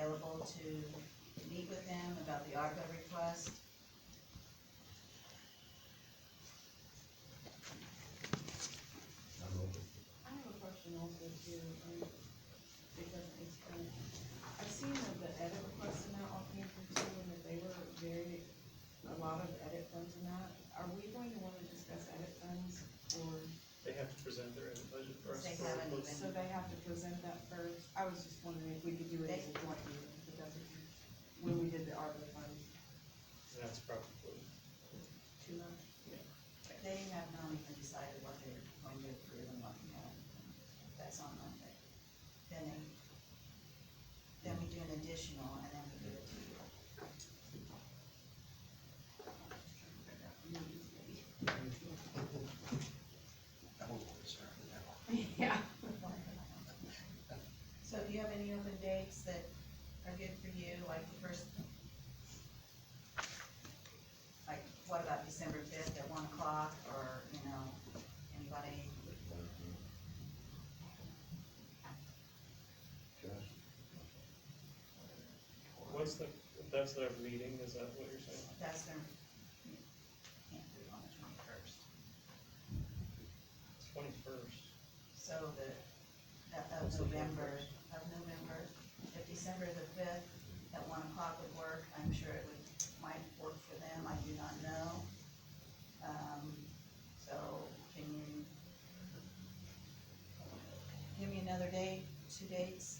able to meet with them about the ARPA request. I'm open. I have a question also too, um, because it's kind of, I've seen that the edit requests in that all came from two, and that they were very, a lot of edit funds in that. Are we going to wanna discuss edit funds, or, They have to present their end budget first. They for haven't both- even- so they have to present that first? I was just wondering if we could do it as a joint meeting, but that's, okay. when we did the ARPA funds, That's probably, two months? They have not even decided what they're going to approve and what not. That's on Monday. Then they, then we do an additional and then we give it to you. That was what we started out. Yeah. So do you have any open dates that are good for you, like the first? Like, what about December fifth at one o'clock, or, you know, anybody? Josh? what's the, that's their meeting, is that what you're saying? That's their, can't do it on the twenty-first. Twenty-first. So the, of- of November, of November, if December the fifth at one o'clock would work, I'm sure it would, might work for them, I do not know. Um, so can you give me another day, two dates?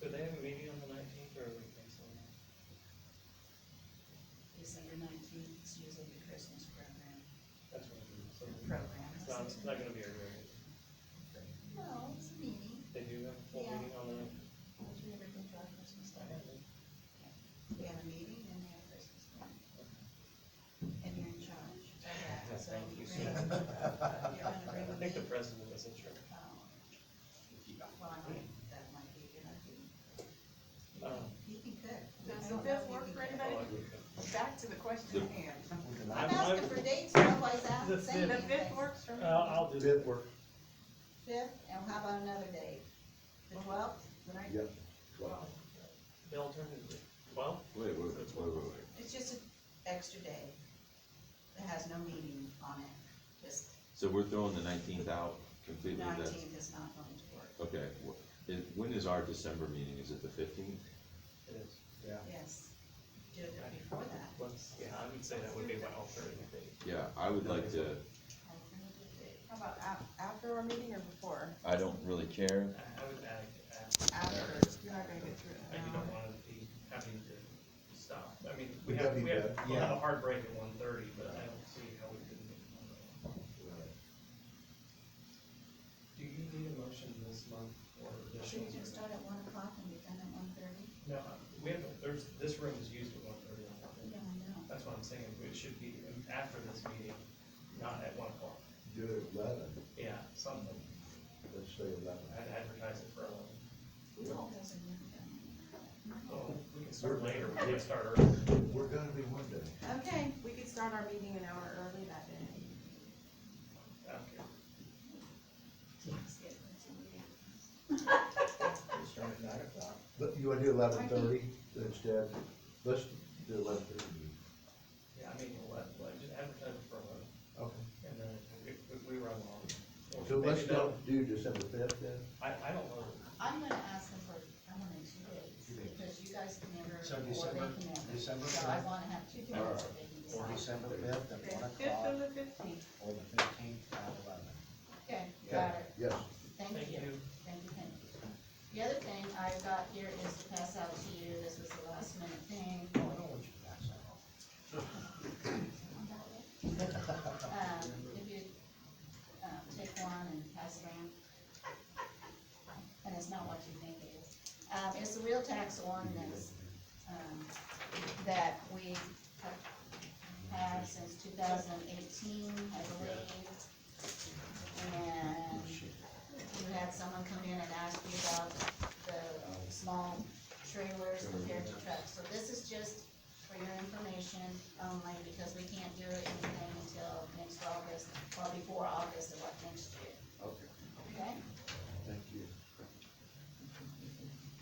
Do they have a meeting on the nineteenth or are we canceling that? December nineteenth is usually the Christmas program, That's what I'm doing, so. program. It's not, it's not gonna be a real meeting. No, it's a meeting, They do have a full Yeah. meeting on the nineteenth. we have everything for our Christmas dinner. We have a meeting and we have Christmas dinner. And you're in charge of that, so Thank you you, bring, you're sir. gonna bring a I think the meeting. president is in charge. Well, I might, that might be a good idea. Um, You can cook. Does I the don't know fifth if you work can for cook. anybody? oh, I would go. Back to the question at hand. I'm I'm- asking I'm- for dates, nobody's The out saying The anything. fifth works for me. I'll, I'll do that. work. Fifth, and how about another date? The twelfth, the ninth? Yep. The alternative, well, Wait, wait, wait, wait, wait, wait. It's just an extra day that has no meeting on it, just So we're throwing the nineteenth out completely, that's, nineteenth is not going to work. okay. wh- Is, when is our December meeting? Is it the fifteenth? it is. Yes, do it before that. Let's, yeah, I would say that would be my alternative date. Yeah, I would like to, How about af- after our meeting or before? I don't really care. I I would add, add, After, you're not gonna get through it. I in an hour. you don't wanna be having to stop. I mean, we Would have, that be we have, bad? we have a hard break at one thirty, but I don't see how we couldn't make one of them. Do you need a motion this month or Should we just start additional? at one o'clock and be done at one thirty? No, we have, there's, this room is used at one thirty. Yeah, I know. That's what I'm saying, it should be after this meeting, not at one o'clock. Do it at eleven, Yeah, something, let's say eleven. I'd advertise it for eleven. We all does a new Well, Oh, we can start later, we can start earlier. We're gonna be one day. thing. Okay, We could start our meeting an hour early that day. I don't care. Start at nine o'clock. But you wanna do eleven thirty instead? Let's do eleven thirty. Yeah, I mean, let, let, just advertise it for eleven. Okay. And then if, if we run long. or So maybe let's don't. not do December fifth then? I, I don't know. I'm gonna ask them for, I want it two days, Two days. because you guys can never, So or they December- can never. December So I fifth? wanna have two days Or- that they can Or decide. December fifth at one Fifth of the o'clock, fifteenth. or the fifteenth at eleven. Okay, got it, Yes. thank you. Thank you, thank you. The other thing I've got here is to pass out to you, this was the last minute thing. Oh, I don't want you to pass that off. Um, if you, um, take one and pass it around. And it's not what you think it is. Um, it's the real tax ordinance, um, that we have had since two thousand eighteen, I believe. um, And you had someone come in and ask you about the small trailers compared to trucks. So this is just for your information only, because we can't do anything until next August, or before August of what next year. Okay.